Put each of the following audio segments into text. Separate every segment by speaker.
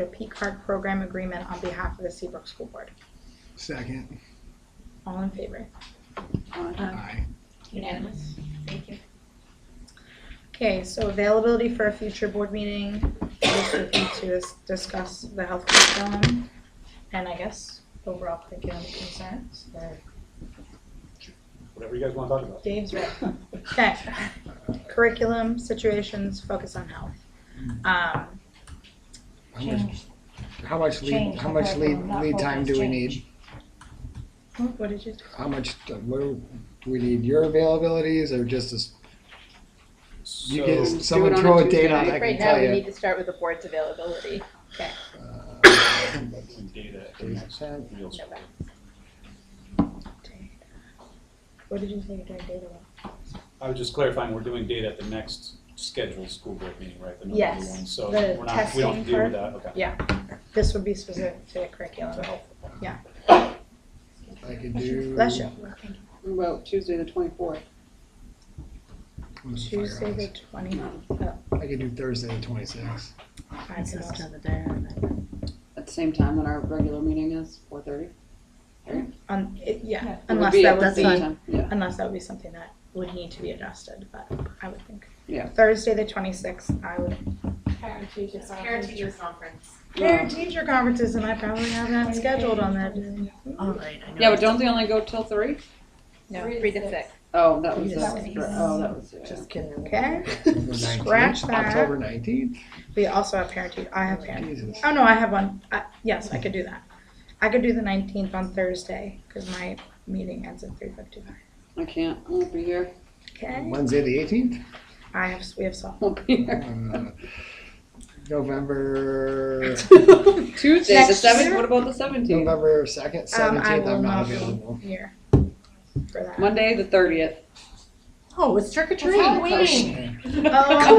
Speaker 1: a P card program agreement on behalf of the Seabrook School Board.
Speaker 2: Second.
Speaker 1: All in favor?
Speaker 2: Aye.
Speaker 1: Unanimous. Thank you. Okay, so availability for a future board meeting, this would be to dis- discuss the health curriculum, and I guess overall curriculum concerns, or
Speaker 3: whatever you guys want to talk about.
Speaker 1: Dave's right. Okay, curriculum, situations, focus on health. Um,
Speaker 2: How much, how much lead,
Speaker 4: Change
Speaker 2: how
Speaker 4: the
Speaker 2: much lead,
Speaker 4: curriculum, not
Speaker 2: lead time
Speaker 4: focus,
Speaker 2: do we
Speaker 4: change.
Speaker 2: need?
Speaker 1: what- what did you,
Speaker 2: How much, uh, what, do we need your availabilities or just as, you get,
Speaker 3: So,
Speaker 2: someone throw a date on, it, I
Speaker 5: Right
Speaker 2: can
Speaker 5: now,
Speaker 2: tell
Speaker 5: we
Speaker 2: you.
Speaker 5: need to start with the board's availability.
Speaker 3: some data at the next
Speaker 2: Uh,
Speaker 3: meals.
Speaker 1: what did you say during data log?
Speaker 3: I was just clarifying, we're doing data at the next scheduled school board meeting, right? The November
Speaker 5: Yes.
Speaker 3: one,
Speaker 1: The
Speaker 3: so we're not, we don't have to deal with that, okay.
Speaker 1: This would be specific to the curriculum.
Speaker 3: To help.
Speaker 2: I could do.
Speaker 1: Bless you.
Speaker 6: Well, Tuesday, the twenty-fourth.
Speaker 2: I'm gonna fire
Speaker 1: Tuesday the
Speaker 2: this.
Speaker 1: twenty,
Speaker 2: I could do Thursday the twenty-sixth.
Speaker 1: I can also,
Speaker 6: At the same time when our regular meeting is, four thirty.
Speaker 1: un- Um, it- yeah,
Speaker 5: Yeah.
Speaker 1: unless that would
Speaker 6: was
Speaker 1: be,
Speaker 6: Yeah,
Speaker 1: unless that would be something that would need to be adjusted, but I would think.
Speaker 6: Yeah.
Speaker 1: Thursday the twenty-sixth, I would.
Speaker 4: Parent teacher
Speaker 7: Parent teacher conference.
Speaker 1: Parent teacher conferences and I probably have that scheduled on that.
Speaker 7: All right, I know.
Speaker 6: yeah, but don't they only go till three?
Speaker 5: No,
Speaker 4: Three to
Speaker 5: three to
Speaker 4: six.
Speaker 5: six.
Speaker 6: Oh, that was,
Speaker 1: Yes.
Speaker 6: that was, oh, that was, yeah.
Speaker 4: Just kidding.
Speaker 1: Okay, Scratch that.
Speaker 2: October nineteenth?
Speaker 1: we also have parent teacher, I have parent,
Speaker 2: Jesus.
Speaker 1: oh no, I have one, I, yes, I could do that. I could do the nineteenth on Thursday, cause my meeting ends at three fifty-five.
Speaker 6: I can't, I won't be here,
Speaker 1: Okay,
Speaker 2: Wednesday the eighteenth? Uh,
Speaker 1: I have, we have softball.
Speaker 6: won't be here.
Speaker 2: November,
Speaker 6: Tuesday, the
Speaker 1: Next
Speaker 6: seventh,
Speaker 1: year?
Speaker 6: what about the seventeenth?
Speaker 2: November second,
Speaker 1: Um, I
Speaker 2: seventeenth,
Speaker 1: will
Speaker 2: I'm not
Speaker 1: be
Speaker 2: available.
Speaker 1: Here. For that.
Speaker 6: Monday, the thirtieth.
Speaker 4: Oh, it's trick or treat.
Speaker 1: Oh my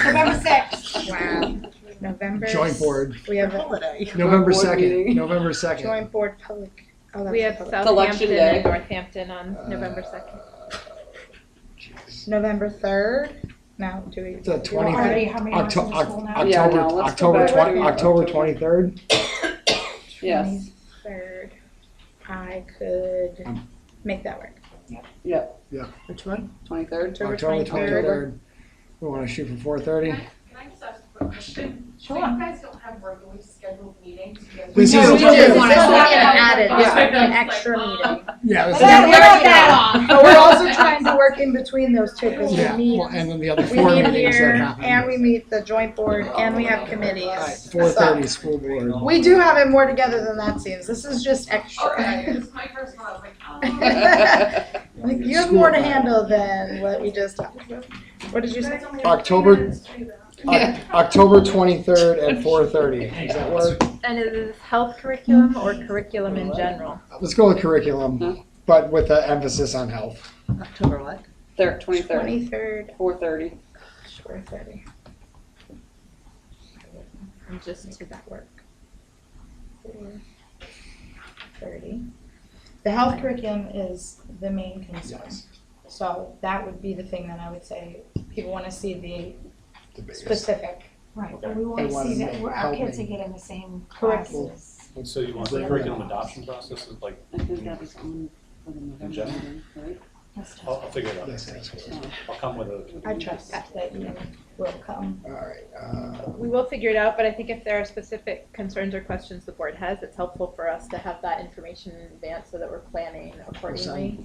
Speaker 4: November sixth.
Speaker 1: gosh. Wow. November.
Speaker 2: Joint board,
Speaker 1: We have a
Speaker 4: Holiday.
Speaker 2: November
Speaker 6: board
Speaker 2: second,
Speaker 6: meeting.
Speaker 2: November second.
Speaker 1: joint board public. Oh, that's
Speaker 5: We have
Speaker 1: public.
Speaker 6: election
Speaker 5: Southampton and
Speaker 6: day.
Speaker 5: Northampton on
Speaker 2: Uh,
Speaker 5: November second.
Speaker 1: November 3rd. No, do we?
Speaker 2: It's the
Speaker 4: You're
Speaker 2: 20
Speaker 4: already, how many hours
Speaker 2: Octo-
Speaker 4: in school
Speaker 2: Oc-
Speaker 4: now?
Speaker 6: Yeah,
Speaker 2: October,
Speaker 6: no, let's go
Speaker 2: October,
Speaker 6: back
Speaker 2: twen-
Speaker 6: to
Speaker 2: October
Speaker 6: October.
Speaker 2: twenty-third?
Speaker 6: Yes.
Speaker 1: 23rd. I could
Speaker 2: Um,
Speaker 1: make that work.
Speaker 4: Which one?
Speaker 6: Twenty-third.
Speaker 1: October
Speaker 2: October
Speaker 1: 23rd.
Speaker 2: twenty-third. We wanna shoot for four thirty?
Speaker 7: Can I just ask a quick question? So
Speaker 4: Sure.
Speaker 7: you guys don't have regularly scheduled meetings? You guys-
Speaker 2: This is-
Speaker 7: No,
Speaker 2: We do.
Speaker 7: just
Speaker 1: want to
Speaker 7: wanted to
Speaker 1: add it.
Speaker 7: Yeah.
Speaker 1: An extra
Speaker 7: "Oh,
Speaker 1: meeting.
Speaker 2: Yeah. this
Speaker 4: Let's
Speaker 2: is-
Speaker 1: Yeah,
Speaker 4: not
Speaker 1: we're-
Speaker 4: work that off.
Speaker 1: But we're also trying to work in between those two because
Speaker 2: Yeah,
Speaker 1: we meet.
Speaker 2: well, and then the other
Speaker 1: We
Speaker 2: four
Speaker 1: meet
Speaker 2: meetings that
Speaker 1: here and we
Speaker 2: happen.
Speaker 1: meet the joint board and we have
Speaker 2: Alright,
Speaker 1: committees.
Speaker 2: four thirty, school board.
Speaker 1: We do have it more together than that seems. This is just
Speaker 7: Okay,
Speaker 1: extra.
Speaker 7: this is my first one, I was like, oh.
Speaker 1: Like, you have more to handle than what we just talked about. What did you say?
Speaker 2: October-
Speaker 7: October.
Speaker 2: Oc- October twenty-third at four thirty, does that work?
Speaker 5: And is this health curriculum or curriculum in general?
Speaker 2: Let's go with curriculum, but with an emphasis on health.
Speaker 4: October what?
Speaker 6: Third, twenty-third,
Speaker 1: Twenty-third,
Speaker 6: four thirty.
Speaker 1: four thirty.
Speaker 5: I'm just
Speaker 1: Let's make that work. Four thirty. The health curriculum is the main concern.
Speaker 2: Yes,
Speaker 1: So that would be the thing that I would say, people wanna see the
Speaker 2: the biggest.
Speaker 1: specific.
Speaker 4: Right, but we want
Speaker 2: They
Speaker 4: to
Speaker 2: wanna
Speaker 4: see that
Speaker 2: make-
Speaker 4: we're- our
Speaker 2: help
Speaker 4: kids are
Speaker 2: me.
Speaker 4: getting the same
Speaker 1: Correct.
Speaker 4: classes.
Speaker 3: So you want the curriculum adoption process, is like,
Speaker 6: I think that was on, for the November
Speaker 3: Agenda.
Speaker 6: meeting, right?
Speaker 4: That's tough.
Speaker 3: I'll, I'll figure it out.
Speaker 2: Yes, yes, yes.
Speaker 3: I'll come with a,
Speaker 6: Oh,
Speaker 1: I trust that you will come.
Speaker 2: All right, uh,
Speaker 5: We will figure it out, but I think if there are specific concerns or questions the board has, it's helpful for us to have that information in advance so that we're planning accordingly.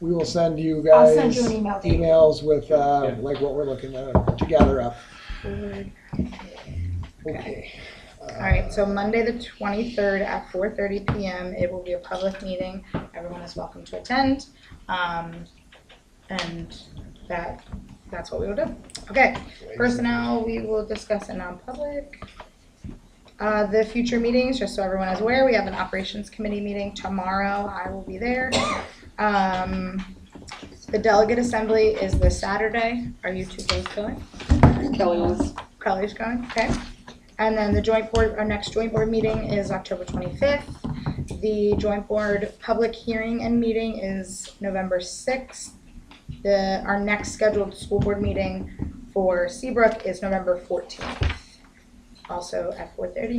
Speaker 2: we will send you
Speaker 4: I'll
Speaker 2: guys.
Speaker 4: send you an email. Dave.
Speaker 2: emails with uh,
Speaker 3: Yeah.
Speaker 2: like what we're looking at together up.
Speaker 1: forward.
Speaker 2: Okay. Uh,
Speaker 1: All right, so Monday, the twenty-third at four thirty PM, it will be a public meeting, everyone is welcome to attend. Um, and that, that's what we will do. Okay, personnel, we will discuss in non-public. Uh, the future meetings, just so everyone is aware, we have an operations committee meeting tomorrow, I will be there. Um, the delegate assembly is this Saturday, are you two both going?
Speaker 6: Kelly was,
Speaker 1: Kelly's going, okay. And then the joint board, our next joint board meeting is October twenty-fifth. The joint board public hearing and meeting is November sixth. The, our next scheduled school board meeting for Seabrook is November fourteenth. also at four thirty